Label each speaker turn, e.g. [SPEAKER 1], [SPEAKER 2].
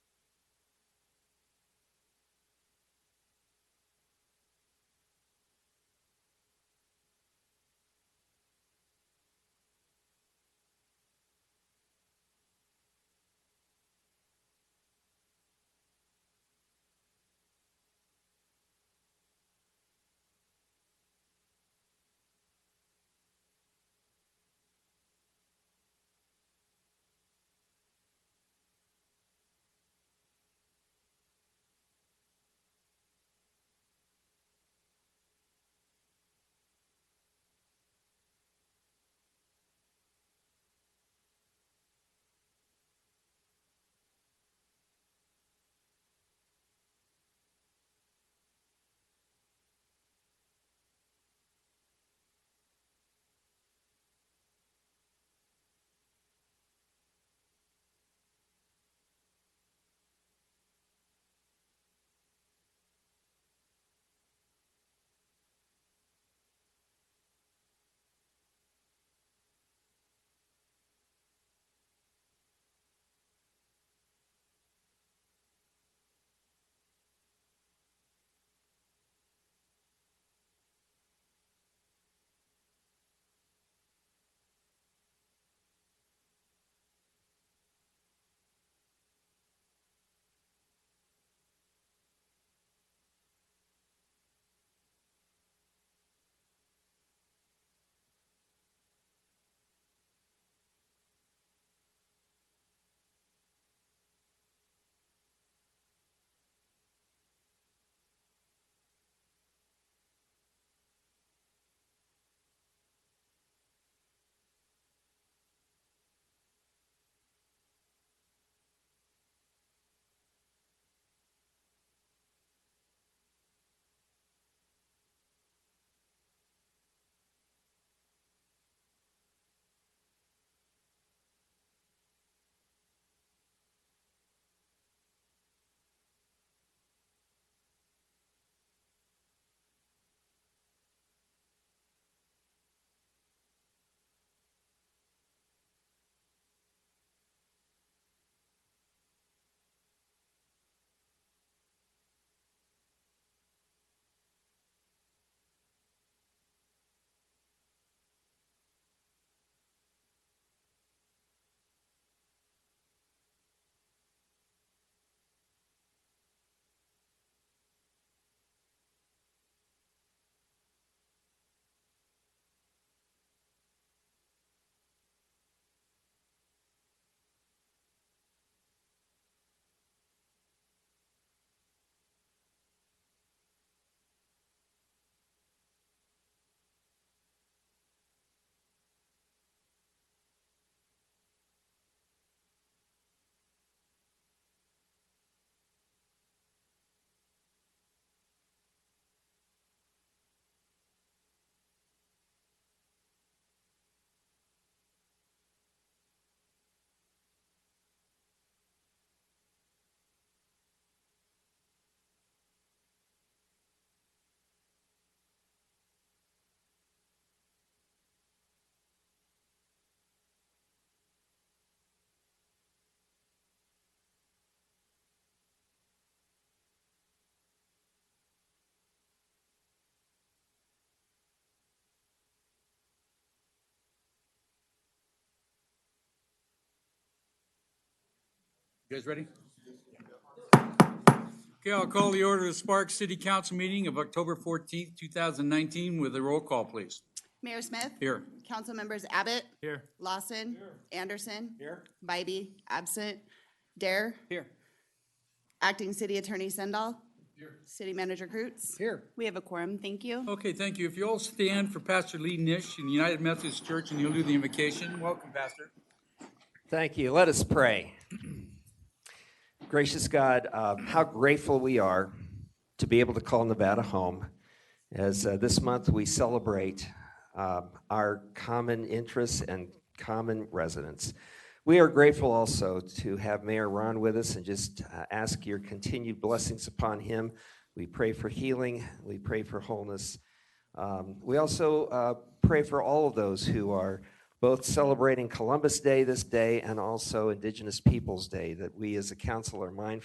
[SPEAKER 1] You guys ready? Okay, I'll call the order of the Spark City Council meeting of October 14th, 2019 with a roll call, please.
[SPEAKER 2] Mayor Smith.
[SPEAKER 1] Here.
[SPEAKER 2] Council members Abbott.
[SPEAKER 1] Here.
[SPEAKER 2] Lawson. Anderson.
[SPEAKER 1] Here.
[SPEAKER 2] Bybee, absent. Dare.
[SPEAKER 1] Here.
[SPEAKER 2] Acting City Attorney Sendall. City Manager Crouts.
[SPEAKER 1] Here.
[SPEAKER 2] We have a quorum. Thank you.
[SPEAKER 1] Okay, thank you. If you all stand for Pastor Lee Nish in United Methodist Church and he'll do the invocation. Welcome, Pastor.
[SPEAKER 3] Thank you. Let us pray. Gracious God, um, how grateful we are to be able to call Nevada home. As uh, this month we celebrate um, our common interests and common residents. We are grateful also to have Mayor Ron with us and just uh, ask your continued blessings upon him. We pray for healing, we pray for wholeness. Um, we also uh, pray for all of those who are both celebrating Columbus Day this day and also Indigenous Peoples Day, that we as a council are mindful.